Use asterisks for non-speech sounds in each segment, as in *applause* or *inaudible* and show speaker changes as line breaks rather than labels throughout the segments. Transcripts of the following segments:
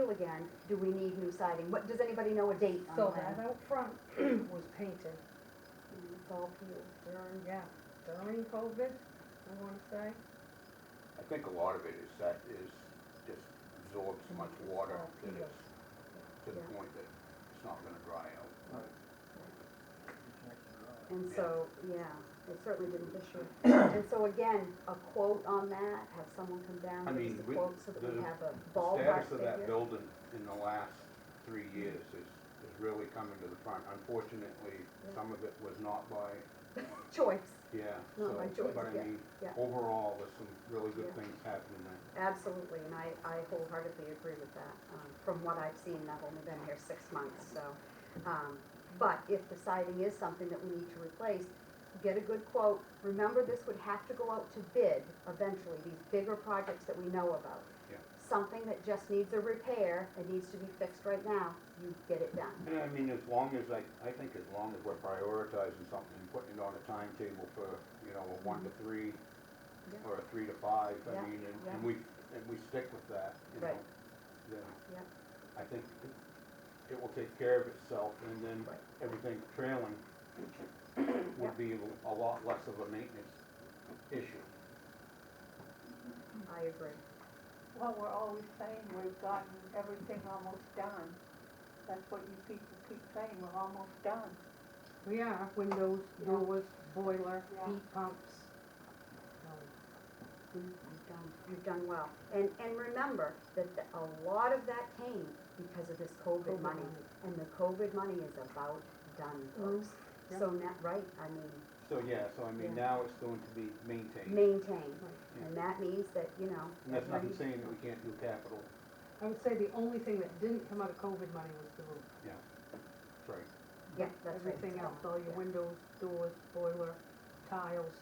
again, do we need new siding? What, does anybody know a date on
So
that?
that out
*clears throat*
front was painted
It's all peeled.
during, yeah, during COVID, I wanna say.
I think a lot of it is that is just absorbs so much water
Oh,
that it's to the
Yeah.
point that it's not gonna dry out.
And
Yeah.
so, yeah, it certainly didn't this year. And so again, a quote on that, have someone come down,
I
give
mean,
us a
we-
quote so that we
the
have a
Status
ballpark
of that
figure.
building in the last three years is, is really coming to the front. Unfortunately,
Yeah.
some of it was not by,
Choice,
yeah, so,
Not by choice,
but I
yeah,
mean,
yeah.
overall, there's some really good
Yeah.
things happening there.
absolutely, and I, I wholeheartedly agree with that, um, from what I've seen, and I've only been here six months, so. Um, but if the siding is something that we need to replace, get a good quote. Remember, this would have to go out to bid eventually, these bigger projects that we know about.
Yeah.
Something that just needs a repair, it needs to be fixed right now, you get it done.
And I mean, as long as, I, I think as long as we're prioritizing something and putting it on a timetable for, you know, a one to three
Yeah.
or a three to five, I
Yeah,
mean, and, and
yeah.
we, and we stick with that, you know.
Right.
Then
Yep.
I think it- it will take care of itself and then
Right.
everything
*coughs*
trailing
Yep.
would be a lot less of a maintenance issue.
I agree.
Well, we're always saying we've gotten everything almost done. That's what you people keep saying, we're almost done.
We are, windows,
Yeah.
doors, boiler,
Yeah.
heat pumps. Um,
You've done, you've done well. And, and remember that the- a lot of that came because of this COVID
COVID
money.
money. Mm-hmm.
And the COVID money is about done, folks.
yeah.
So not, right, I mean,
So, yeah, so I mean,
Yeah.
now it's going to be maintained.
maintain.
Yeah.
And that means that, you know.
And that's
everybody-
nothing saying that we can't do capital,
I would say the only thing that didn't come out of COVID money was the roof.
sorry.
Yeah, that's right.
Everything
So,
else, all your
yeah.
windows, doors, boiler, tiles,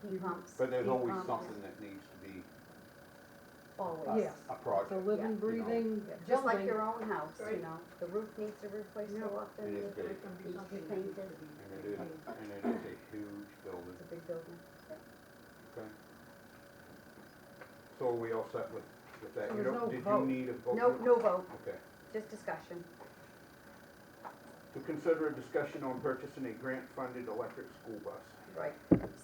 Heat pumps,
But there's
Heat
always
um,
pumps.
something that needs to be
always.
Yes.
a
the
project.
living,
you know,
breathing,
Yeah, Just like
jumping.
your own house, you
Right.
know, the roof needs to replace so
Yeah.
often.
It is
the-
big,
Needs to be painted.
and it is, and it is a huge building,
It's a big building.
okay? So are we all set with, with that?
So
You
there's
don't,
no
did you
vote.
need a vote?
No, no vote,
Okay.
just discussion.
To consider a discussion on purchasing a grant-funded electric school bus.
Right,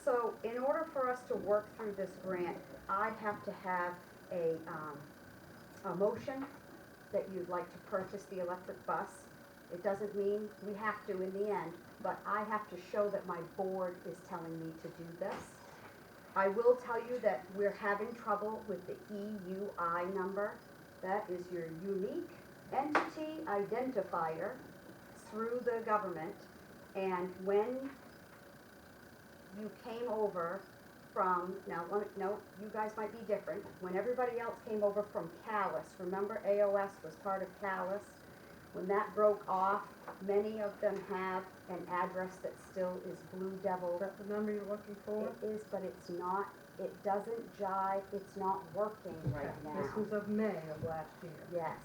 so in order for us to work through this grant, I'd have to have a, um, a motion that you'd like to purchase the electric bus. It doesn't mean we have to in the end, but I have to show that my board is telling me to do this. I will tell you that we're having trouble with the EUI number. That is your unique entity identifier through the government. And when you came over from, now, let me- no, you guys might be different, when everybody else came over from Callis, remember AOS was part of Callis? When that broke off, many of them have an address that still is Blue Devil.
Is that the number you're looking for?
It is, but it's not, it doesn't jive, it's not working right now.
This was of May of last year.
Yes,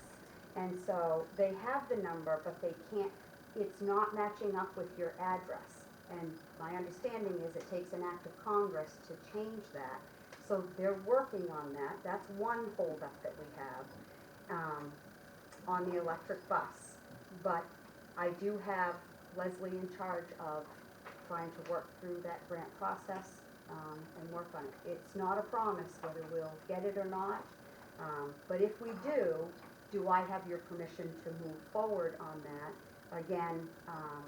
and so they have the number, but they can't, it's not matching up with your address. And my understanding is it takes an act of Congress to change that. So they're working on that, that's one holdup that we have, um, on the electric bus. But I do have Leslie in charge of trying to work through that grant process, um, and work on it. It's not a promise whether we'll get it or not, um, But if we do, do I have your permission to move forward on that? Again, um,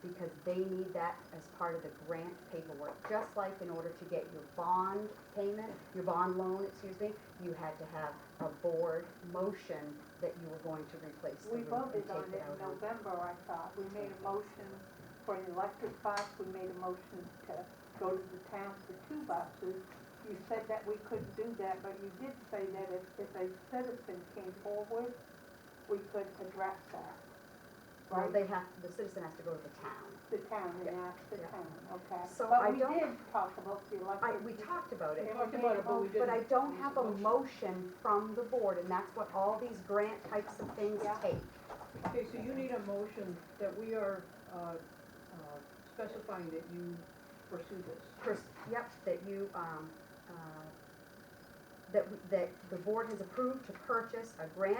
because they need that as part of the grant paperwork, just like in order to get your bond payment, your bond loan, excuse me, you had to have a board motion that you were going to replace the
We
roof and
voted on
take
it
it
in
out on.
November, I thought. We made a motion for an electric bus, we made a motion to go to the town for two buses. You said that we couldn't do that, but you did say that if, if a citizen came forward, we could address that.
Well,
Right?
they have, the citizen has to go to the town.
The town, and
Yeah,
asked the
yeah.
town, okay?
So I don't-
But we did talk about the
I,
electric.
we talked about it.
We
talked about it, but we
But I
didn't.
don't have a motion from the board, and that's what all these grant types of things
Yeah.
take.
Okay, so you need a motion that we are, uh, uh, specifying that you pursue this.
pers- yep, that you, um, uh, that, that the board has approved to purchase a grant